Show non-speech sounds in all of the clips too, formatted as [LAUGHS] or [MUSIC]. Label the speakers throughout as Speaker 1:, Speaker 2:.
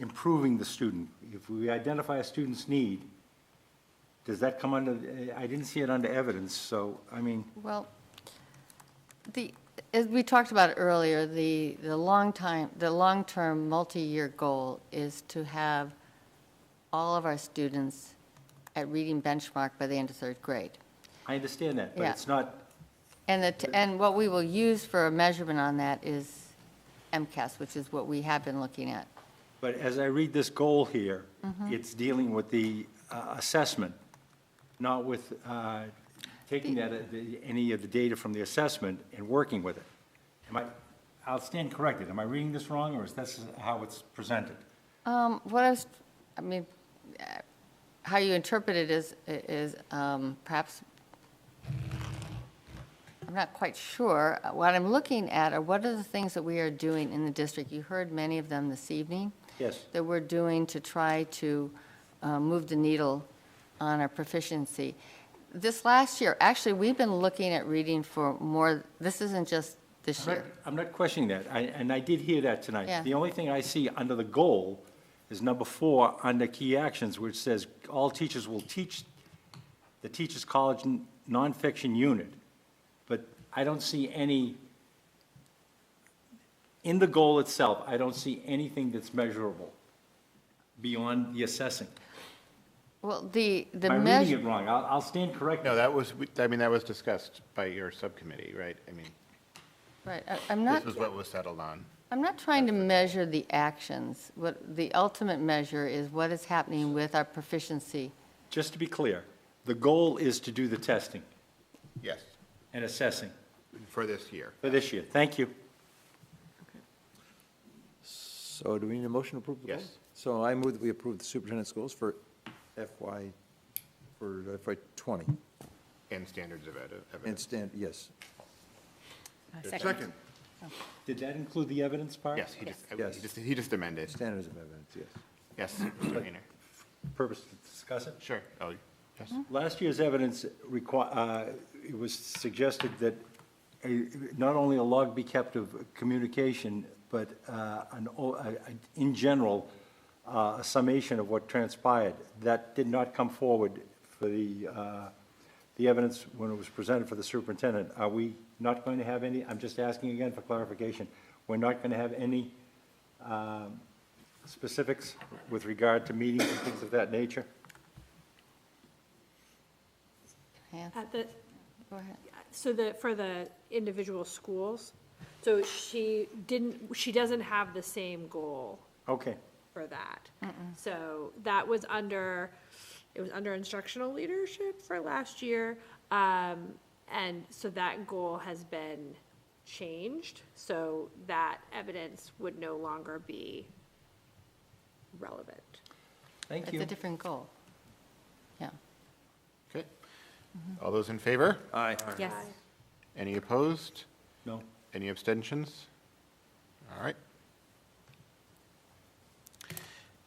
Speaker 1: improving the student? If we identify a student's need, does that come under, I didn't see it under evidence, so, I mean,
Speaker 2: Well, the, as we talked about earlier, the, the long time, the long-term, multi-year goal is to have all of our students at reading benchmark by the end of third grade.
Speaker 1: I understand that, but
Speaker 2: Yeah.
Speaker 1: it's not,
Speaker 2: And the, and what we will use for a measurement on that is MCAS, which is what we have been looking at.
Speaker 1: but as I read this goal here, it's dealing with the uh, assessment, not with uh, taking that, uh, the- any of the data from the assessment and working with it. Am I, I'll stand corrected, am I reading this wrong, or is this how it's presented?
Speaker 2: Um, What I was, I mean, uh, how you interpret it is, is um, perhaps, I'm not quite sure. Uh, What I'm looking at are what are the things that we are doing in the district? You heard many of them this evening.
Speaker 1: Yes.
Speaker 2: That we're doing to try to uh, move the needle on our proficiency. This last year, actually, we've been looking at reading for more, this isn't just this
Speaker 1: I'm
Speaker 2: year.
Speaker 1: not- I'm not questioning that, I- and I did hear that tonight.
Speaker 2: Yeah.
Speaker 1: The only thing I see under the goal is number four, under key actions, which says, "All teachers will teach the Teachers College n- nonfiction unit." But I don't see any, in the goal itself, I don't see anything that's measurable beyond the assessing.
Speaker 2: Well, the, the
Speaker 1: Am
Speaker 2: measure.
Speaker 1: I reading it wrong? I'll I'll stand corrected.
Speaker 3: No, that was, I mean, that was discussed by your subcommittee, right? I mean,
Speaker 2: Right, I- I'm not.
Speaker 3: this was what was settled on.
Speaker 2: I'm not trying to measure the actions. What, the ultimate measure is what is happening with our proficiency.
Speaker 1: Just to be clear, the goal is to do the testing
Speaker 3: Yes,
Speaker 1: and assessing
Speaker 3: for this year.
Speaker 1: for this year. Thank you.
Speaker 4: So do we need a motion to approve the goals?
Speaker 3: Yes.
Speaker 4: So I move that we approve the superintendent's goals for FY, for FY '20.
Speaker 3: And standards of evi-
Speaker 4: And
Speaker 3: evidence.
Speaker 4: stand, yes,
Speaker 3: Second.
Speaker 1: Did that include the evidence part?
Speaker 3: Yes, he just,
Speaker 4: Yes.
Speaker 3: he just, he just amended.
Speaker 4: standards of evidence, yes.
Speaker 3: Yes, Mr. Hayner.
Speaker 1: Purpose to discuss it?
Speaker 3: Sure. Oh, yes.
Speaker 1: Last year's evidence requi, uh, it was suggested that a, not only a log be kept of communication, but, uh, an, o- a- a- in general, uh, a summation of what transpired. That did not come forward for the, uh, the evidence when it was presented for the superintendent. Are we not going to have any, I'm just asking again for clarification, we're not going to have any, um, specifics with regard to meetings and things of that nature?
Speaker 2: Yeah,
Speaker 5: At the,
Speaker 2: Go ahead.
Speaker 5: so the, for the individual schools, so she didn't, she doesn't have the same goal
Speaker 1: Okay.
Speaker 5: for that. So that was under, it was under instructional leadership for last year. Um, and so that goal has been changed, so that evidence would no longer be relevant.
Speaker 1: Thank
Speaker 2: It's a different goal. Yeah.
Speaker 3: Okay. All those in favor?
Speaker 4: Aye.
Speaker 2: Yes.
Speaker 3: Any opposed?
Speaker 1: No.
Speaker 3: Any abstentions? All right.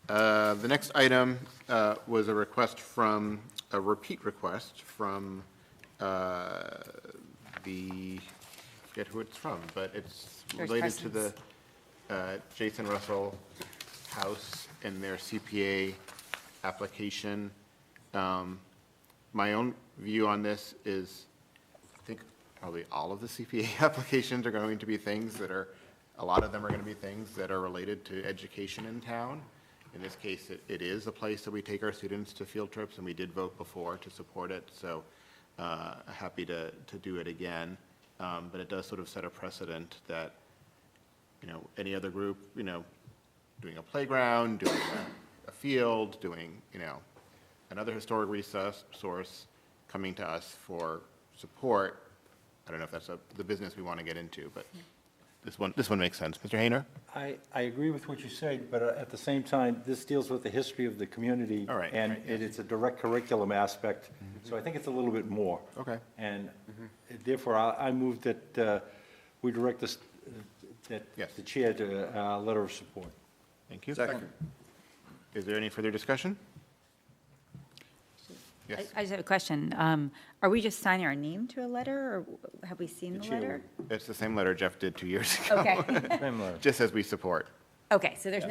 Speaker 3: Uh, The next item uh, was a request from, a repeat request from uh, the, I forget who it's from, but it's
Speaker 2: George
Speaker 3: related to the uh, Jason Russell House and their CPA application. Um, My own view on this is, I think probably all of the CPA [LAUGHS] applications are going to be things that are, a lot of them are going to be things that are related to education in town. In this case, it, it is a place that we take our students to field trips, and we did vote before to support it, so, uh, happy to, to do it again. Um, but it does sort of set a precedent that, you know, any other group, you know, doing a playground, doing a, a field, doing, you know, another historic resource, source, coming to us for support. I don't know if that's a, the business we want to get into, but this one, this one makes sense. Mr. Hayner?
Speaker 1: I, I agree with what you said, but uh, at the same time, this deals with the history of the community.
Speaker 3: All right,
Speaker 1: And
Speaker 3: right, Mm-hmm.
Speaker 1: it- it's a direct curriculum aspect, so I think it's a little bit more.
Speaker 3: Okay. Mm-hmm.
Speaker 1: And therefore, I, I move that uh, we direct this, uh, that
Speaker 3: Yes.
Speaker 1: the chair to uh, a letter of support.
Speaker 3: Thank you.
Speaker 4: Second.
Speaker 3: Is there any further discussion?
Speaker 6: I-
Speaker 3: Yes,
Speaker 6: I just have a question. Um, Are we just signing our name to a letter, or have we seen
Speaker 1: The
Speaker 6: the
Speaker 1: chair
Speaker 6: letter?
Speaker 3: it's the same letter Jeff did two years [LAUGHS] ago,
Speaker 6: Okay,
Speaker 3: [LAUGHS]
Speaker 1: Same letter.
Speaker 3: just as we support.
Speaker 6: okay, so there's